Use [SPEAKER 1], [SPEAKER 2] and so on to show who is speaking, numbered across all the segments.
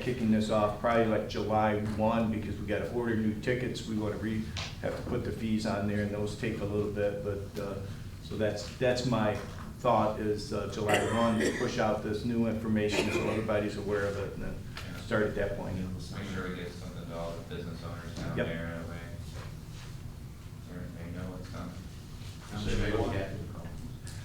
[SPEAKER 1] kicking this off probably like July one, because we gotta order new tickets, we wanna re, have to put the fees on there, and those take a little bit, but, uh, so that's, that's my thought, is uh, July one, to push out this new information so everybody's aware of it, and then start at that point.
[SPEAKER 2] Make sure we get something to all the business owners down
[SPEAKER 1] Yep.
[SPEAKER 2] there, that way they- they know what's coming.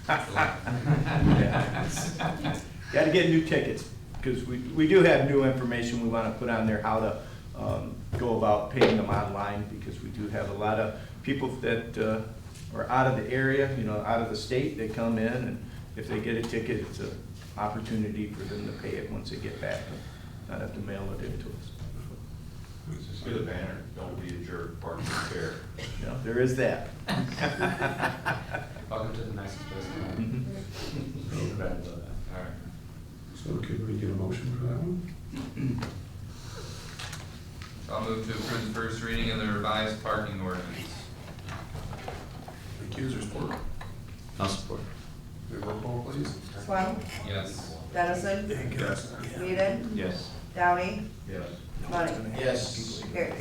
[SPEAKER 1] Gotta get new tickets, because we, we do have new information we wanna put on there, how to, um, go about paying them online, because we do have a lot of people that, uh, are out of the area, you know, out of the state, they come in, and if they get a ticket, it's an opportunity for them to pay it once they get back, and not have to mail it in to us.
[SPEAKER 3] Just get a banner, don't be a jerk, park your chair.
[SPEAKER 1] You know, there is that.
[SPEAKER 2] Welcome to the nicest place in the world.
[SPEAKER 1] Mhm.
[SPEAKER 2] All right.
[SPEAKER 4] So could we get a motion for that one?
[SPEAKER 2] So I'll move to approve the first reading of the revised parking ordinance.
[SPEAKER 3] Thank you, is there support?
[SPEAKER 5] I'll support.
[SPEAKER 3] May roll call please?
[SPEAKER 6] Swam,
[SPEAKER 2] Yes.
[SPEAKER 6] Dennison,
[SPEAKER 3] Yes.
[SPEAKER 6] Whedon,
[SPEAKER 1] Yes.
[SPEAKER 6] Downey,
[SPEAKER 1] Yes.
[SPEAKER 6] Money.
[SPEAKER 3] Yes.
[SPEAKER 6] Carried.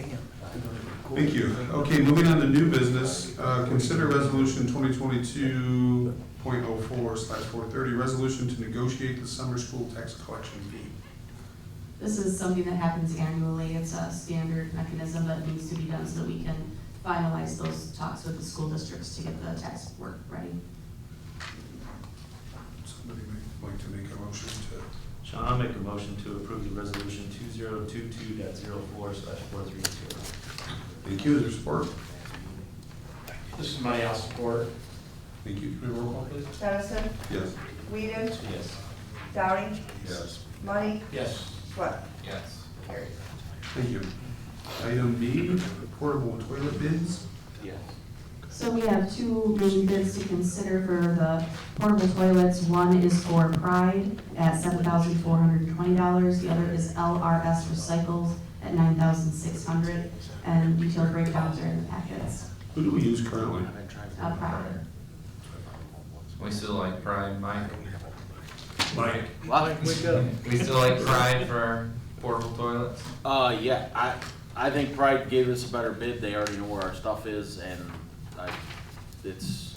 [SPEAKER 3] Thank you. Okay, moving on to new business, uh, consider resolution twenty twenty-two point oh four slash four thirty, resolution to negotiate the summer school tax collection fee.
[SPEAKER 7] This is something that happens annually. It's a standard mechanism that needs to be done so that we can finalize those talks with the school districts to get the tax work ready.
[SPEAKER 3] Somebody may like to make a motion to,
[SPEAKER 5] Sean, I'll make a motion to approve the resolution two zero two two dot zero four slash four three two.
[SPEAKER 3] thank you, is there support?
[SPEAKER 8] This is money I'll support.
[SPEAKER 3] Thank you, may roll call please?
[SPEAKER 6] Dennison,
[SPEAKER 3] Yes.
[SPEAKER 6] Whedon,
[SPEAKER 5] Yes.
[SPEAKER 6] Downey,
[SPEAKER 3] Yes.
[SPEAKER 6] Money,
[SPEAKER 8] Yes.
[SPEAKER 6] Swam.
[SPEAKER 2] Yes.
[SPEAKER 6] Carried.
[SPEAKER 3] Thank you. Item B, portable toilet bids.
[SPEAKER 8] Yes.
[SPEAKER 7] So we have two main bids to consider for the portable toilets. One is for Pride at seven thousand four hundred and twenty dollars. The other is LRS Recycles at nine thousand six hundred. And detailed breakdowns are in the packets.
[SPEAKER 3] Who do we use currently?
[SPEAKER 7] Uh, Pride.
[SPEAKER 2] We still like Pride, Mike?
[SPEAKER 3] Mike.
[SPEAKER 9] What?
[SPEAKER 2] We still like Pride for our portable toilets?
[SPEAKER 9] Uh, yeah, I, I think Pride gave us a better bid, they already know where our stuff is, and I, it's,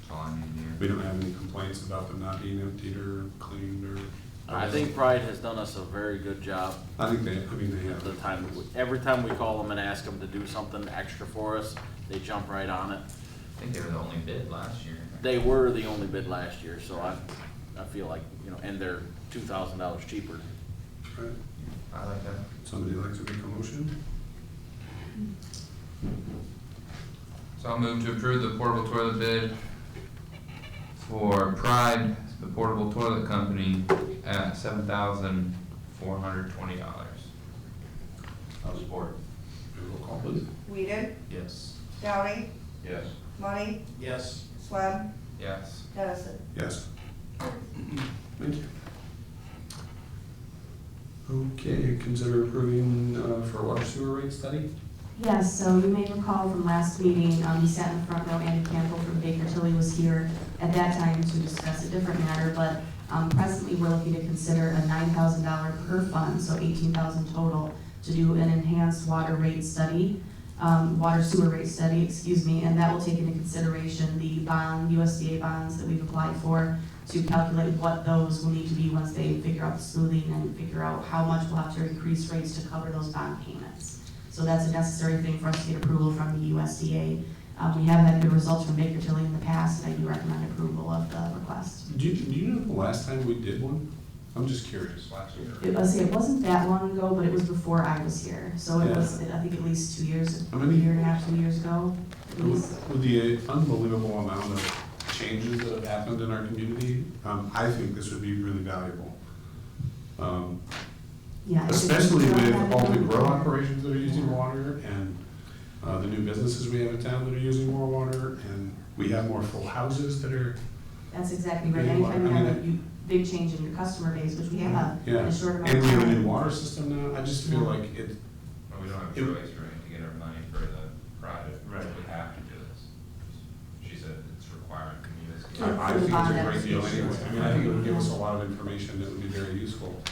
[SPEAKER 2] That's all I need here.
[SPEAKER 3] We don't have any complaints about them not being emptied or cleaned or.
[SPEAKER 9] I think Pride has done us a very good job
[SPEAKER 3] I think they, I mean, they have.
[SPEAKER 9] the time, every time we call them and ask them to do something extra for us, they jump right on it.
[SPEAKER 2] I think they were the only bid last year.
[SPEAKER 9] They were the only bid last year, so I, I feel like, you know, and they're two thousand dollars cheaper.
[SPEAKER 3] Right.
[SPEAKER 2] I like that.
[SPEAKER 3] Somebody like to make a motion?
[SPEAKER 2] So I'll move to approve the portable toilet bid for Pride, the portable toilet company, at seven thousand four hundred twenty dollars.
[SPEAKER 3] I'll support. Roll call please.
[SPEAKER 6] Whedon,
[SPEAKER 2] Yes.
[SPEAKER 6] Downey,
[SPEAKER 3] Yes.
[SPEAKER 6] Money,
[SPEAKER 8] Yes.
[SPEAKER 6] Swam,
[SPEAKER 2] Yes.
[SPEAKER 6] Dennison.
[SPEAKER 3] Yes. Thank you. Okay, consider approving, uh, for water sewer rate study?
[SPEAKER 7] Yes, so you may recall from last meeting, um, you sat in the front row, Andy Campbell from Baker Tilly was here at that time to discuss a different matter, but, um, presently, we're looking to consider a nine thousand dollar per fund, so eighteen thousand total, to do an enhanced water rate study, um, water sewer rate study, excuse me, and that will take into consideration the bond, USDA bonds that we've applied for to calculate what those will need to be once they figure out the smoothing and figure out how much we'll have to increase rates to cover those bond payments. So that's a necessary thing for us to get approval from the USDA. Uh, we have had good results from Baker Tilly in the past, and I do recommend approval of the request.
[SPEAKER 3] Do you, do you know the last time we did one? I'm just curious.
[SPEAKER 2] Last year.
[SPEAKER 7] It, let's see, it wasn't that long ago, but it was before I was here, so it was, I think at least two years,
[SPEAKER 3] How
[SPEAKER 7] a
[SPEAKER 3] many-
[SPEAKER 7] year and a half, two years ago, at
[SPEAKER 3] With
[SPEAKER 7] least.
[SPEAKER 3] with the unbelievable amount of changes that have happened in our community, um, I think this would be really valuable. Um,
[SPEAKER 7] Yeah. I think-
[SPEAKER 3] Especially with all the grow operations that are using water and uh, the new businesses we have in town that are using more water, and we have more full houses that are,
[SPEAKER 7] That's exactly right.
[SPEAKER 3] Yeah,
[SPEAKER 7] Anytime you
[SPEAKER 3] I mean,
[SPEAKER 7] have a
[SPEAKER 3] it-
[SPEAKER 7] you- big change in your customer base, which we have in
[SPEAKER 3] yeah.
[SPEAKER 7] Uh, a short amount
[SPEAKER 3] And
[SPEAKER 7] of
[SPEAKER 3] we have a
[SPEAKER 7] time.
[SPEAKER 3] new water system now, I just feel like it,
[SPEAKER 2] Well, we don't have a choice, right, to get our money for the Pride,
[SPEAKER 5] Right.
[SPEAKER 2] we have to do this. She said it's required from
[SPEAKER 3] I
[SPEAKER 2] you.
[SPEAKER 3] I think it's a great deal anyway. I mean, I think it would give us a lot of information that would be very useful.